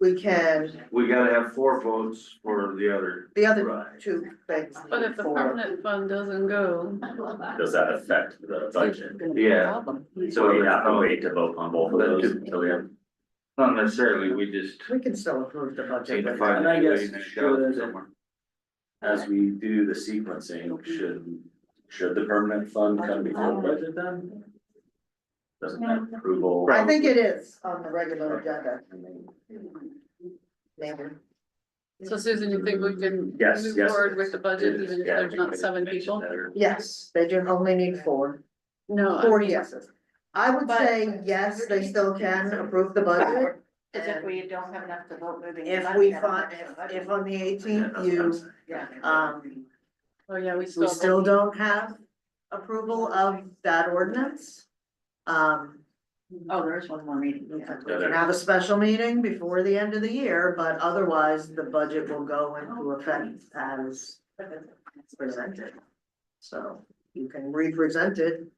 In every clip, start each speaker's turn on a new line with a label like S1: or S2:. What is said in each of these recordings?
S1: we can,
S2: We gotta have four votes for the other
S1: the other
S2: ride.
S1: two things.
S3: But if the
S1: for-
S3: permanent fund doesn't go.
S4: Does that affect the budget?
S2: Yeah.
S4: So we have to wait to vote on both of those until we have.
S2: Not necessarily, we just
S1: We can still approve the
S2: take
S1: budget.
S2: the
S1: with
S2: five.
S1: that.
S4: And I guess
S2: million and shove it
S4: should-
S2: somewhere.
S4: As we do the sequencing, should, should the permanent fund come before the budget then? Doesn't that approval?
S1: I think it is on the regular agenda. Maybe.
S3: So Susan, you think we can
S4: Yes,
S3: move
S4: yes.
S3: forward with the budget
S4: It is,
S3: even if
S4: yeah, I
S3: there's
S4: think
S3: not
S4: it's
S3: seven
S4: mentioned
S3: people?
S4: there.
S1: Yes, they do only need four,
S3: No.
S1: four yeses. I would
S5: But-
S1: say, yes, they still can approve the budget.
S5: As if we don't have enough to vote moving. the
S1: If
S5: money
S1: we
S5: out of
S1: find,
S5: the
S1: if,
S5: budget.
S1: if on the
S4: Yeah,
S1: eighteenth
S4: that's what I'm
S1: you,
S4: saying.
S5: Yeah.
S1: um,
S3: Oh, yeah, we still.
S1: we still don't have approval of that ordinance. Um,
S5: Oh, there is one more meeting.
S1: we
S5: yeah.
S1: can have a special meeting before the end of the year, but otherwise the budget will go into effect as presented. So you can re-present it. if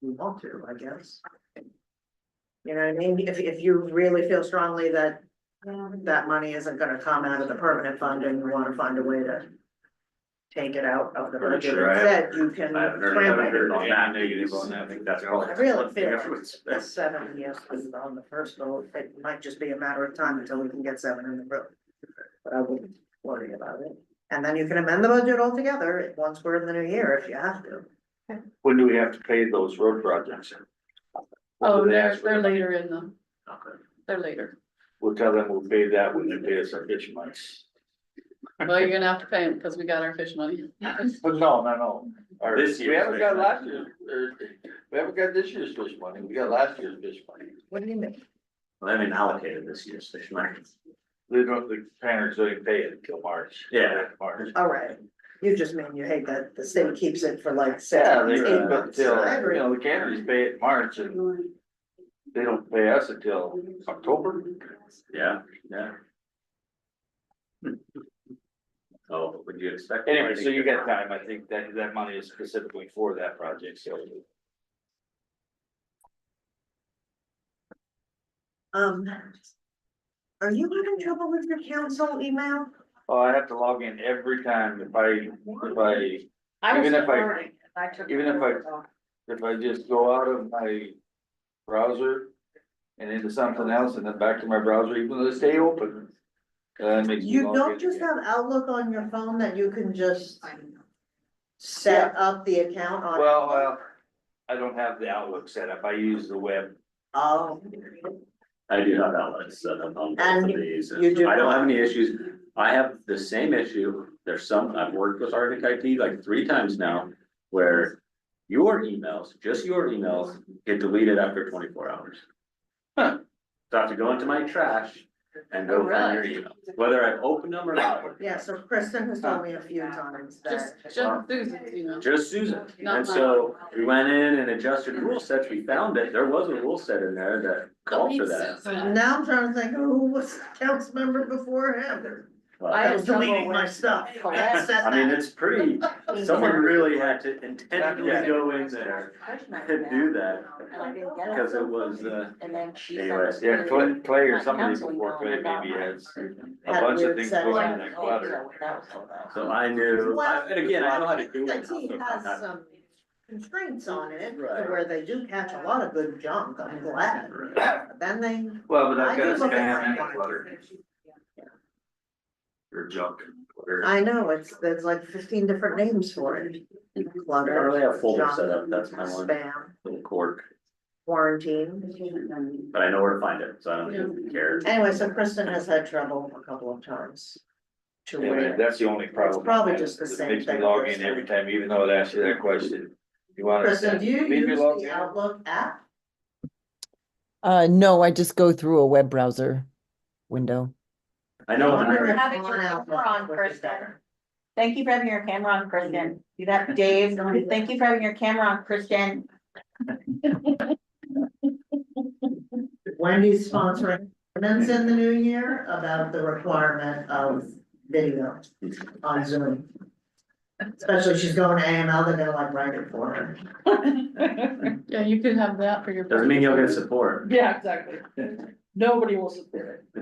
S1: You want to, I guess. You know what I mean? If, if you really feel strongly that that money isn't gonna come out of the permanent fund and you wanna find a way to. Take it out of the
S4: Pretty
S1: budget
S4: sure I
S1: instead, you can.
S4: I haven't heard, I haven't heard on that, maybe it's on that, I think that's probably.
S1: I really feel
S4: Everyone's-
S1: the seven yes is on the first vote, it might just be a matter of time until we can get seven in the room. But I wouldn't worry about it, and then you can amend the budget altogether once we're in the new year if you have to.
S2: When do we have to pay those road projects?
S3: Oh,
S2: They
S3: they're,
S2: ask for
S3: they're
S2: it.
S3: later in the,
S2: Okay.
S3: they're later.
S2: We'll tell them we'll pay that when they pay us our fish months.
S3: Well, you're gonna have to pay them because we got our fish money.
S2: But no, no, no. Our-
S4: This
S2: We
S4: year's
S2: haven't got
S4: fish
S2: last
S4: money.
S2: year's, or, we haven't got this year's fish money, we got last year's fish money.
S1: What do you mean?
S4: Well, I haven't allocated this year's fish money.
S2: They don't, the parents don't pay it until March.
S4: Yeah.
S2: March.
S1: All right, you just mean you hate that the state keeps it for like
S2: Yeah,
S1: seven,
S2: they
S1: eight
S2: keep it
S1: months.
S2: till,
S1: I
S2: you
S1: agree.
S2: know, the canneries pay it in March and they don't pay us until October.
S4: Yeah, yeah. Oh, what would you expect?
S2: Anyway, so you got time, I think that that money is specifically for that project, so.
S1: Um. Are you having trouble with your council email?
S2: Oh, I have to log in every time if I, if I,
S5: I was
S2: Even if I-
S5: learning, I took.
S2: even if I- if I just go out of my browser. And into something else and then back to my browser, even though they stay open. Uh, makes me
S1: You
S2: log in
S1: don't just
S2: again.
S1: have Outlook on your phone that you can just
S2: Yeah.
S1: set up the account on?
S2: Well, uh, I don't have the Outlook set up, I use the web.
S1: Oh,
S4: I do have outlets set up on both of
S1: And
S4: these.
S1: you do
S4: I don't have
S1: not-
S4: any issues. I have the same issue. There's some, I've worked with Arctic IT like three times now where your emails, just your emails get deleted after twenty-four hours.
S2: Huh.
S4: So I have to go into my trash and go find your email, whether I've opened them or not.
S1: yeah, so Kristen has told me a few times
S3: Just,
S1: that,
S3: just Susan's email.
S4: Just Susan.
S3: Not
S4: And so we went in and adjusted rule sets. We found it. There was a rule set in there that called for that.
S1: now I'm trying to think, who was the council member before him?
S4: But-
S5: I
S1: I
S5: had
S1: was
S5: trouble
S1: deleting my
S5: with-
S1: stuff.
S5: Correct.
S1: Said
S4: I mean,
S1: that.
S4: it's pretty, someone really had to intentionally
S2: Yeah.
S4: go in there and do that,
S5: And I didn't get
S4: because
S5: it.
S4: it was, uh,
S5: And then she. sent
S4: Anyway,
S5: us
S2: Yeah,
S5: the-
S2: Clay, Clay or
S5: my
S2: somebody
S5: council
S2: before Clay
S5: email about
S2: maybe
S5: my-
S2: has a
S1: Had
S2: bunch of
S1: weird
S2: things
S1: setup.
S2: going
S5: Like,
S2: in that
S5: oh,
S2: clutter.
S5: so that was all that.
S4: so I knew, I- and again, I know how to do
S1: The
S4: it.
S1: team has some constraints on it, to
S4: Right.
S1: where they do catch a lot of good junk, I'm glad,
S4: Right.
S1: But then they.
S2: Well, but
S1: I
S2: I've got a
S1: do look at
S2: spam and
S1: my-
S2: a clutter. Or junk. or-
S1: I know, it's, there's like fifteen different names for it.
S4: I
S1: Clutter.
S4: really have folders
S1: junk,
S4: set up, that's my one
S1: Spam,
S4: little quirk,
S1: quarantine.
S4: but I know where to find it, so I don't even care.
S1: Anyway, so Kristen has had trouble a couple of times. To
S2: Anyway,
S1: where,
S2: that's the only problem.
S1: probably
S2: I have,
S1: just the
S2: is it
S1: same
S2: Makes me
S1: thing
S2: log
S1: first
S2: in
S1: time.
S2: every time, even though it asks you that question. You wanna.
S1: Kristen, do you
S2: Leave your
S1: use
S2: log
S1: the
S2: in.
S1: Outlook app?
S6: Uh, no, I just go through a web browser window.
S4: I
S1: I
S4: know
S1: wonder
S4: that
S1: if
S5: Have it
S1: on
S5: your
S1: Outlook
S5: camera on,
S1: would be
S5: Kristen.
S1: better.
S5: Thank you for having your camera on, Kristen. Do that, Dave. Thank you for having your camera on, Kristen.
S1: Wendy's sponsoring, events in the new year about the requirement of video on Zoom. Especially she's going to AML, they're gonna like write it for her.
S3: Yeah, you could have that for your.
S4: doesn't mean you'll get support.
S5: Yeah, exactly.
S4: nobody will support it.